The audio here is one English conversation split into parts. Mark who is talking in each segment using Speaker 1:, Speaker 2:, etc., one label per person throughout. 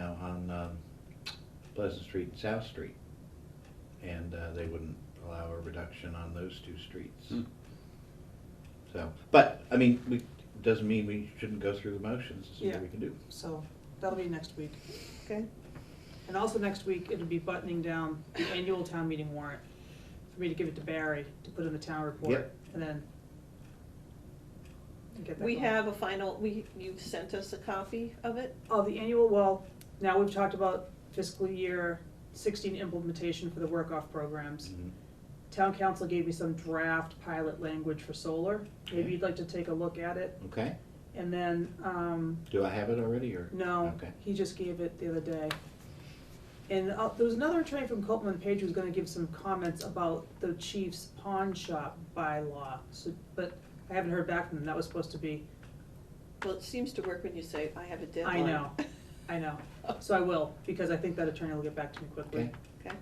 Speaker 1: on um, Pleasant Street and South Street. And uh, they wouldn't allow a reduction on those two streets.
Speaker 2: Hmm.
Speaker 1: So, but, I mean, we, doesn't mean we shouldn't go through the motions and see
Speaker 3: Yeah.
Speaker 1: what we can do.
Speaker 3: So that'll be next week.
Speaker 4: Okay.
Speaker 3: And also next week, it'll be buttoning down the annual town meeting warrant for me to give it to Barry to put in the town report
Speaker 1: Yep.
Speaker 3: and then get that
Speaker 4: We
Speaker 3: going.
Speaker 4: have a final, we, you've sent us a copy of it?
Speaker 3: Oh, the annual, well, now we've talked about fiscal year sixteen implementation for the work-off programs.
Speaker 1: Mhm.
Speaker 3: Town council gave me some draft pilot language for solar. Maybe
Speaker 1: Okay. Mm-hmm.
Speaker 3: you'd like to take a look at it.
Speaker 1: Okay,
Speaker 3: And then, um,
Speaker 1: do I have it already, or?
Speaker 3: No,
Speaker 1: Okay.
Speaker 3: he just gave it the other day. And uh, there was another attorney from Copeland Page who was gonna give some comments about the chief's pawn shop bylaw, so, but I haven't heard back from them, that was supposed to be,
Speaker 4: Well, it seems to work when you say, I have a
Speaker 3: I
Speaker 4: deadline.
Speaker 3: know, I know. So I will, because I think that attorney will get back to me quickly.
Speaker 1: Okay,
Speaker 4: Okay,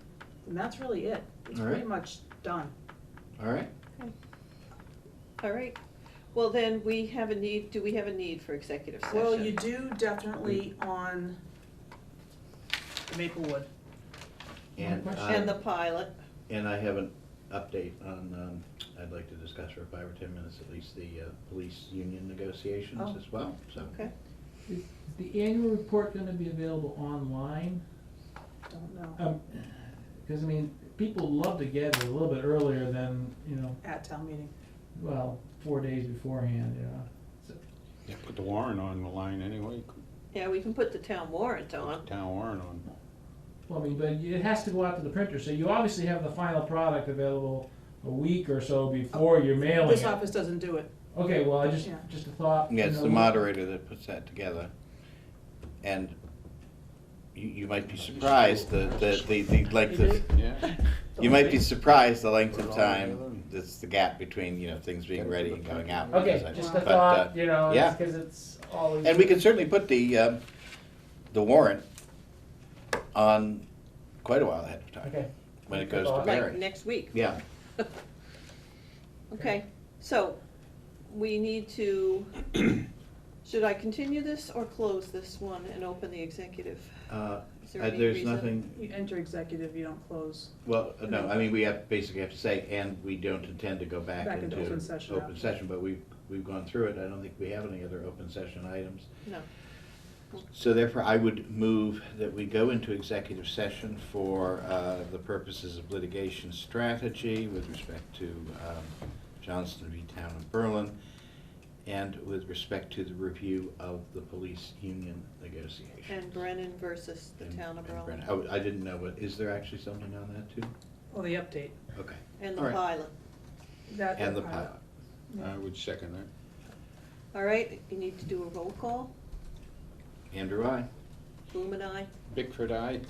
Speaker 3: And that's really it, it's
Speaker 1: All
Speaker 3: pretty
Speaker 1: right.
Speaker 3: much done.
Speaker 1: all right.
Speaker 4: all right. Well, then, we have a need, do we have a need for executive session?
Speaker 3: Well, you do definitely
Speaker 1: Mm.
Speaker 3: on the Maplewood,
Speaker 1: And,
Speaker 5: One
Speaker 4: And the
Speaker 1: uh,
Speaker 4: pilot,
Speaker 1: and I have an update on, um, I'd like to discuss for five or 10 minutes at least the uh, police union negotiations
Speaker 3: Oh.
Speaker 1: as well, so.
Speaker 4: okay.
Speaker 5: Is is the annual report gonna be available online?
Speaker 3: don't know,
Speaker 5: Um 'cause cause I mean, people love to get it a little bit earlier than, you know,
Speaker 3: at town meeting.
Speaker 5: well, four days beforehand, you know. So,
Speaker 2: Yeah, put the warrant on the line anyway,
Speaker 4: Yeah, we can put the town warrant on.
Speaker 2: town warrant on.
Speaker 5: Well, I mean, but it has to go out to the printer, so you obviously have the final product available a week or so before you're mailing
Speaker 3: This
Speaker 5: it.
Speaker 3: office doesn't do it,
Speaker 5: Okay, well, I just,
Speaker 3: Yeah.
Speaker 5: just a thought. you
Speaker 1: Yeah, it's
Speaker 5: know,
Speaker 1: the
Speaker 5: we-
Speaker 1: moderator that puts that together. And you, you might be surprised the, the, the, the length
Speaker 3: You
Speaker 1: of,
Speaker 2: Yeah.
Speaker 1: you might be surprised the length of time, that's the gap between, you know, things being ready and going out.
Speaker 5: Okay,
Speaker 1: Because I-
Speaker 5: just a
Speaker 1: but, uh,
Speaker 5: thought, you know,
Speaker 1: yeah.
Speaker 5: it's cause it's always.
Speaker 1: And we can certainly put the, um, the warrant on quite a while ahead of time,
Speaker 5: Okay.
Speaker 1: when it goes to
Speaker 4: Like,
Speaker 5: Like
Speaker 1: Barry.
Speaker 4: next week.
Speaker 1: Yeah,
Speaker 4: Okay, so, we need to, should I continue this or close this one and open the executive?
Speaker 1: uh,
Speaker 4: Is there
Speaker 1: I-
Speaker 4: any
Speaker 1: there's
Speaker 4: reason?
Speaker 1: nothing,
Speaker 3: you enter executive, you don't close.
Speaker 1: Well, uh, no, I mean, we have, basically have to say, and we don't intend to go back
Speaker 3: Back
Speaker 1: into
Speaker 3: into open session
Speaker 1: open
Speaker 3: after.
Speaker 1: session, but we've, we've gone through it, I don't think we have any other open session items.
Speaker 4: No,
Speaker 1: So therefore, I would move that we go into executive session for uh, the purposes of litigation strategy with respect to um, Johnston v. Town of Berlin, and with respect to the review of the police union negotiations.
Speaker 4: and Brennan versus the
Speaker 1: And-
Speaker 4: town of
Speaker 1: and Brennan.
Speaker 4: Berlin,
Speaker 1: Oh, I didn't know, but is there actually something on that too?
Speaker 3: Oh, the update,
Speaker 1: Okay.
Speaker 4: and the
Speaker 1: All right.
Speaker 4: pilot.
Speaker 3: that.
Speaker 1: And the
Speaker 3: uh,
Speaker 1: pilot.
Speaker 3: yeah.
Speaker 2: I would second that.
Speaker 4: All right, you need to do a roll call,
Speaker 1: Andrew, I.
Speaker 4: Bloom and I.
Speaker 2: Bickford, aye.